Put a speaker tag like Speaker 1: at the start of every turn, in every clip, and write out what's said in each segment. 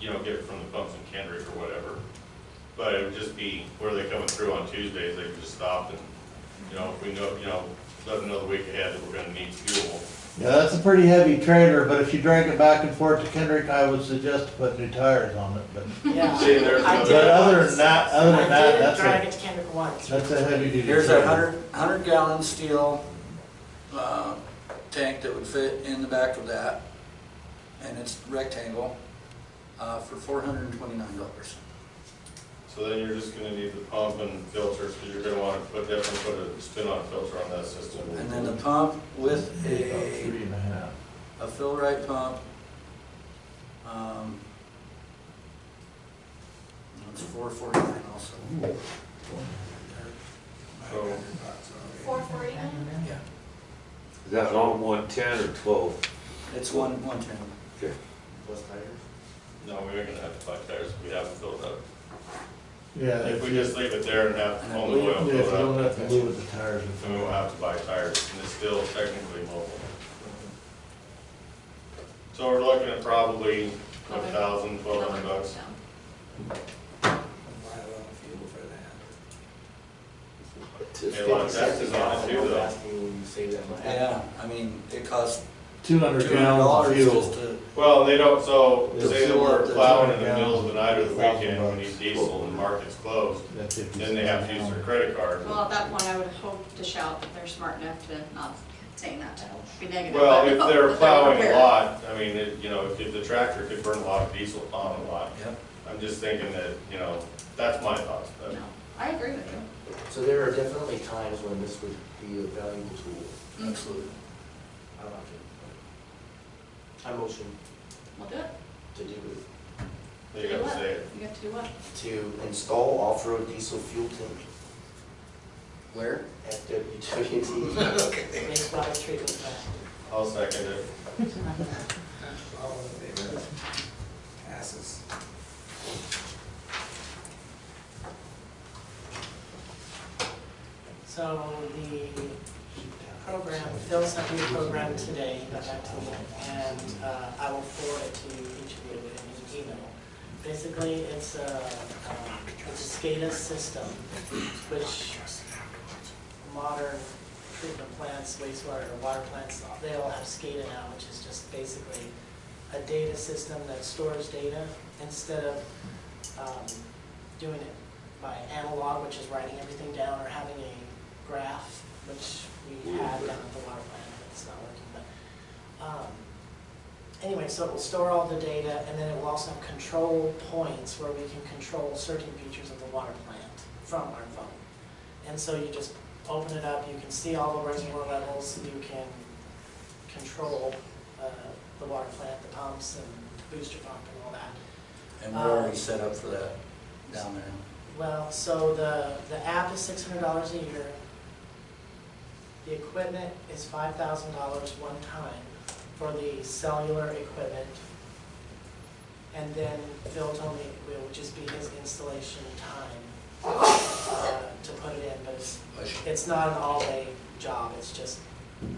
Speaker 1: you know, get it from the pumps in Kendrick or whatever. But it would just be where they're coming through on Tuesdays, they could just stop and, you know, if we know, you know, let them know the week ahead that we're gonna need fuel.
Speaker 2: Yeah, that's a pretty heavy trailer, but if you drag it back and forth to Kendrick, I would suggest to put new tires on it, but,
Speaker 3: Yeah.
Speaker 1: See, there's
Speaker 3: I
Speaker 2: but
Speaker 3: did.
Speaker 1: another,
Speaker 2: other than that, other than
Speaker 3: I
Speaker 2: that,
Speaker 3: did
Speaker 2: that's
Speaker 3: drive
Speaker 2: a,
Speaker 3: it to Kendrick once.
Speaker 2: that's a heavy duty trailer.
Speaker 4: Here's a hundred, hundred gallon steel, uh, tank that would fit in the back of that, and it's rectangle, uh, for four hundred and twenty-nine dollars.
Speaker 1: so then you're just gonna need the pump and filters, cause you're gonna wanna put, definitely put a spin on filter on that system.
Speaker 4: And then the pump with
Speaker 2: About
Speaker 4: a,
Speaker 2: three and a half.
Speaker 4: a fill right pump. um, That's four forty-nine also.
Speaker 1: So-
Speaker 3: uh,
Speaker 5: Four forty-nine?
Speaker 4: Yeah,
Speaker 6: Is that on one ten or twelve?
Speaker 4: it's one, one ten.
Speaker 6: Okay.
Speaker 1: No, we are gonna have to buy tires, we haven't filled up.
Speaker 2: Yeah,
Speaker 1: If
Speaker 2: Uh, if
Speaker 1: we just leave it there and have only
Speaker 2: you
Speaker 1: oil filled up,
Speaker 2: don't have to move with the tires. and-
Speaker 1: then we will have to buy tires, and it's still technically mobile. So we're looking at probably a thousand, twelve hundred bucks. Yeah, a lot of taxes on it too, though.
Speaker 4: Yeah, I mean, it costs
Speaker 2: Two
Speaker 4: two
Speaker 2: hundred
Speaker 4: hundred
Speaker 2: gallons of
Speaker 4: dollars
Speaker 2: fuel.
Speaker 4: just to,
Speaker 1: Well, they don't, so
Speaker 2: They'll
Speaker 1: say that
Speaker 4: fill up
Speaker 1: we're
Speaker 4: the
Speaker 1: plowing in
Speaker 2: tire
Speaker 1: the middle of the night or the
Speaker 2: gallons,
Speaker 1: weekend,
Speaker 2: thousand
Speaker 1: we need
Speaker 2: bucks.
Speaker 1: diesel and the market's closed,
Speaker 2: That's if you-
Speaker 1: then they have to use their credit card.
Speaker 5: Well, at that point, I would hope to shout that they're smart enough to not saying that to be negative.
Speaker 1: Well,
Speaker 5: but
Speaker 1: if they're
Speaker 5: that
Speaker 1: plowing a
Speaker 5: aware.
Speaker 1: lot, I mean, it- you know, if if the tractor could burn a lot of diesel on a lot,
Speaker 4: yeah.
Speaker 1: I'm just thinking that, you know, that's my thoughts. but-
Speaker 5: No, I agree with you.
Speaker 7: So there are definitely times when this would be a valuable tool.
Speaker 4: Absolutely.
Speaker 7: I like it. I motion
Speaker 5: We'll do it.
Speaker 7: to do,
Speaker 1: They gotta say it.
Speaker 5: You have to do what?
Speaker 7: to install off-road diesel fuel tank
Speaker 4: Where?
Speaker 7: at E. WWT.
Speaker 3: Waste water treatment plant.
Speaker 1: I'll second it.
Speaker 8: Passes.
Speaker 3: So the program, Phil sent me a program today, he got that to me, and uh, I will forward it to each of you in an email. Basically, it's a, um, it's a SCADA system, which modern treatment plants, wastewater, or water plants, they all have SCADA now, which is just basically a data system that stores data instead of um, doing it by analog, which is writing everything down, or having a graph, which we had down at the water plant, but it's not working, but. um, Anyway, so it will store all the data, and then it will also have control points where we can control certain features of the water plant from our phone. And so you just open it up, you can see all the reservoir levels, you can control uh, the water plant, the pumps, and booster pump and all that.
Speaker 4: And we're already set up for that down there.
Speaker 3: Well, so the, the app is six hundred dollars a year. The equipment is five thousand dollars one time for the cellular equipment. And then Phil told me it will just be his installation time uh, to put it in, but it's, it's not an all-day job, it's just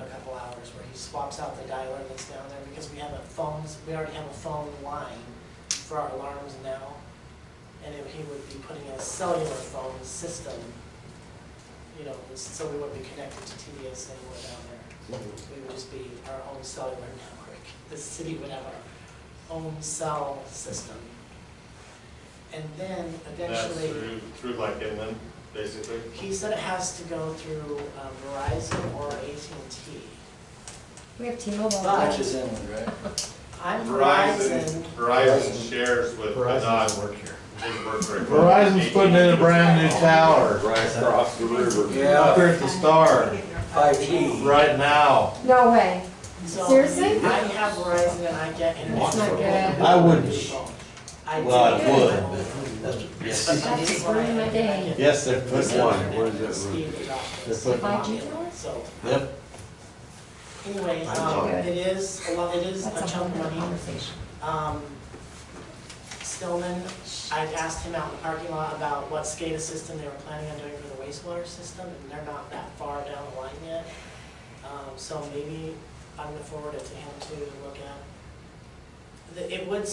Speaker 3: a couple hours where he swaps out the dialer that's down there because we have a phones, we already have a phone line for our alarms now and if he would be putting in a cellular phone system, you know, so we wouldn't be connected to TDS anywhere down there. We would just be our own cellular network. The city would have our own cell system. And then
Speaker 1: That's
Speaker 3: eventually.
Speaker 1: through, through like inland, basically.
Speaker 3: He said it has to go through um, Verizon or AT&T.
Speaker 9: We have T-Mobile.
Speaker 3: But-
Speaker 4: Which is inland, right?
Speaker 3: I'm
Speaker 1: Verizon,
Speaker 3: Verizon.
Speaker 1: Verizon shares with Verizon.
Speaker 2: Verizon's work here. Verizon's
Speaker 1: Verizon's
Speaker 2: putting in a brand new tower,
Speaker 6: Right across the river.
Speaker 2: up here at the Star,
Speaker 4: Five G.
Speaker 2: right now.
Speaker 9: No way.
Speaker 3: So
Speaker 9: Seriously?
Speaker 3: I have Verizon and I get internet.
Speaker 9: It's not good.
Speaker 2: I wouldn't.
Speaker 3: I do.
Speaker 2: Well, I would,
Speaker 4: That's-
Speaker 9: That's ruining my day.
Speaker 2: Yes, they're
Speaker 6: This
Speaker 2: putting
Speaker 6: one,
Speaker 2: one.
Speaker 6: what is that room?
Speaker 2: This one.
Speaker 9: Five G tower?
Speaker 3: So,
Speaker 2: Yep.
Speaker 3: anyway,
Speaker 9: Five G.
Speaker 3: um, it is, a lot, it is a
Speaker 9: That's a
Speaker 3: chunk of
Speaker 9: whole other
Speaker 3: money.
Speaker 9: conversation.
Speaker 3: Um, Stillman, I've asked him out in the parking lot about what SCADA system they were planning on doing for the wastewater system, and they're not that far down the line yet. Um, so maybe I'm gonna forward it to him to look at. The- It would